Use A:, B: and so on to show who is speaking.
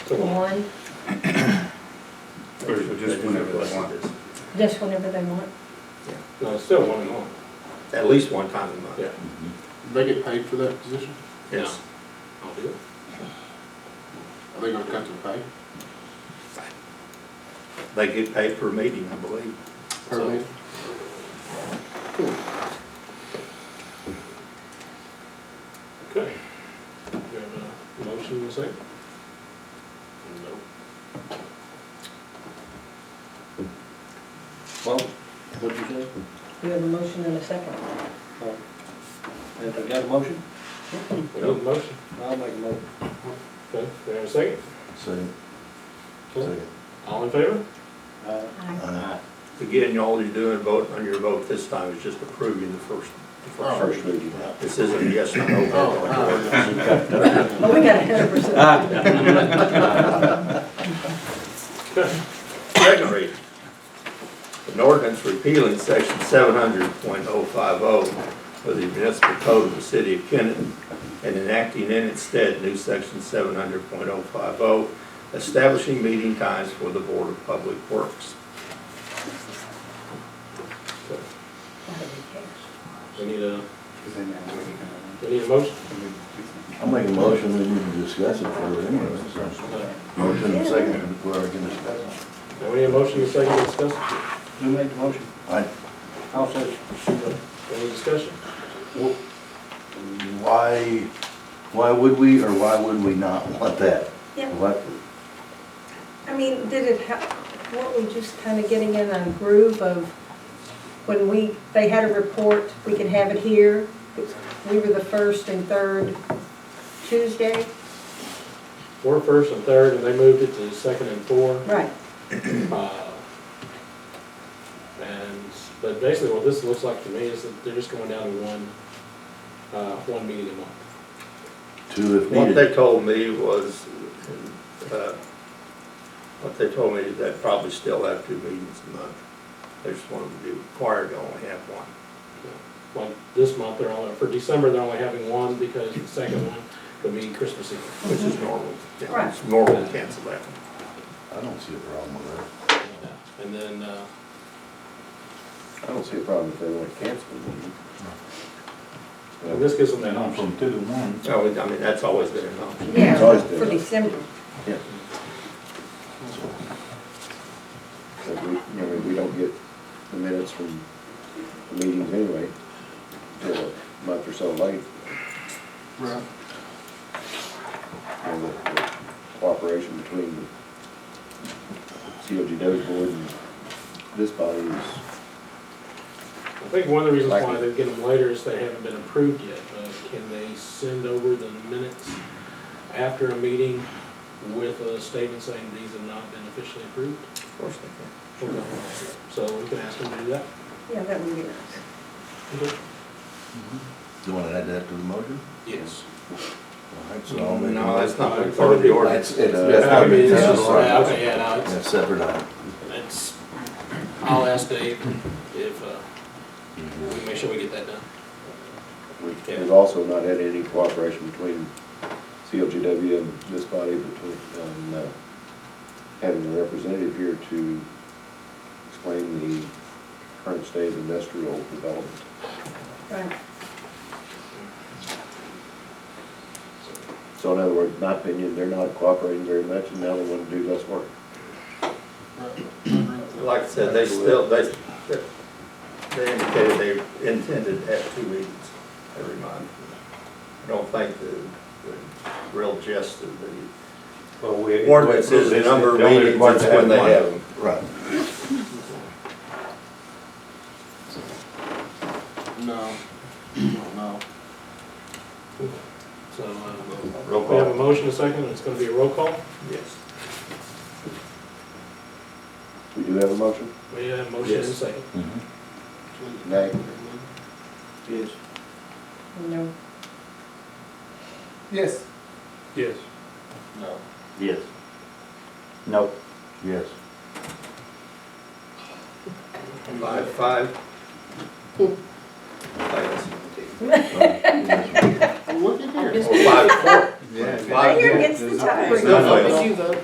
A: one,
B: Or just whenever they want.
A: just whenever they want.
C: No, it's still one and one.
D: At least one time a month.
C: Yeah.
E: They get paid for that position?
D: Yes.
C: I'll do it.
E: Are they gonna cut their pay
D: They get paid per meeting, I believe.
E: per
D: So-
E: man?
C: Okay. Do you have a motion in a second? No.
F: Well, what'd you say?
A: We have a motion and a second.
F: Uh, Have we got a motion?
C: We need a motion.
F: I'll make a motion.
C: Okay, do you have a second?
G: Second,
C: Okay.
G: second.
C: All in favor?
F: Uh,
G: Uh,
D: Again, you all you're doing, vote on your vote this time is just approving the first, the
E: Oh.
D: first.
G: First reading, right?
D: This isn't a yes or no.
E: Oh,
D: vote.
E: uh,
A: Oh, we got a hundred percent.
C: Okay.
D: Second reading. An ordinance repealing section seven hundred point oh five oh of the municipal code of the city of Kennet and enacting in its stead new section seven hundred point oh five oh, establishing meeting times for the Board of Public Works.
C: We need a, we need a motion.
G: I'll make a motion, we need to discuss it further anyway, so. Motion and second, whoever can discuss it.
C: Now, we need a motion in a second to discuss.
F: Who made the motion?
G: I,
F: I'll second.
C: Any discussion?
G: why, why would we, or why would we not want that?
A: Yeah.
G: What,
A: I mean, did it help, weren't we just kind of getting in a groove of when we, they had a report, we could have it here. We were the first and third Tuesday.
C: We're first and third, and they moved it to second and four.
A: Right.
C: Uh, And, but basically what this looks like to me is that they're just going down to one, uh, one meeting a month.
G: two if
D: What they
G: needed?
D: told me was, uh, what they told me is they probably still have two meetings a month. They just wanted to be required to only have one.
C: Like this month, they're only, for December, they're only having one because the second one would be Christmas Eve.
D: Which is normal. Yeah, It's
A: Mm-hmm. Right.
D: normal to cancel that one.
G: I don't see a problem with that.
C: And then, uh,
H: I don't see a problem if they want to cancel the meeting.
C: and this gives them that option.
H: two to one.
D: So, I mean, that's always been an option.
A: Yeah,
G: It's always
A: for December.
H: But we, I mean, we don't get the minutes from the meetings anyway, until a month or so late,
E: Right.
H: and the the cooperation between the COGW board and this body is,
C: I think one of the reasons why they get them later is they haven't been approved yet, but can they send over the minutes after a meeting with a statement saying these have not been officially approved?
D: Of course they
C: Okay. So we can ask them to do that.
A: Yeah, that would be nice.
G: Do you want to add that to the motion?
C: Yes.
G: All right,
D: can.
G: so I'll make a
D: No, that's
G: motion.
D: not been part of the
G: That's,
D: ordinance.
G: it's,
H: Uh,
G: that's
C: I
G: not,
C: mean,
G: it's
C: it's
G: not
C: just, yeah,
G: a
C: okay, yeah, no, it's-
G: That's separate item.
C: It's, I'll ask Dave if, uh, we make sure we get that done.
H: we've- we've also not had any cooperation between COGW and this body between, um, uh, having a representative here to explain the current state of industrial development.
A: Right.
H: So in other words, in my opinion, they're not cooperating very much, and now they want to do less work.
D: Like I said, they still, they, they- they indicated they intended to have two meetings every month. I don't think the, the real gist of the ordinance is the number of meetings, it's when they have them.
G: Right.
E: No, no, no.
C: So, uh,
D: Roll
C: we have a
D: call.
C: motion, a second, and it's gonna be a roll call.
D: Yes.
H: We do have a motion?
C: We have a motion and a
D: Yes.
C: second.
H: Nay.
F: Yes.
A: No.
F: Yes.
C: Yes.
E: No.
F: Yes. No.
G: Yes.
D: Five, five. Yes.
E: Look at here.
D: Or five, four.
A: Right here gets the top.
D: It's not like-